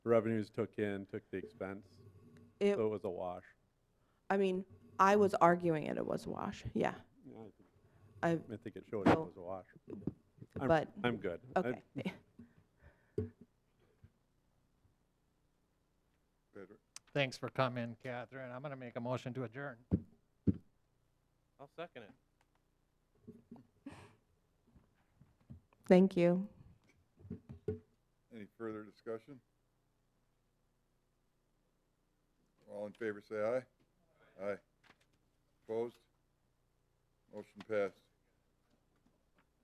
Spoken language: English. revenues took in, took the expense, It, so it was a wash. I mean, I was arguing it, it was a wash, yeah. Yeah, I think- I, I think it showed it So- was a wash. I'm- but, I'm good. I- okay. Thanks for coming, Catherine. I'm gonna make a motion to adjourn. I'll second it. Thank you. Any further discussion? All in favor, say aye. Aye. Opposed? Motion passed.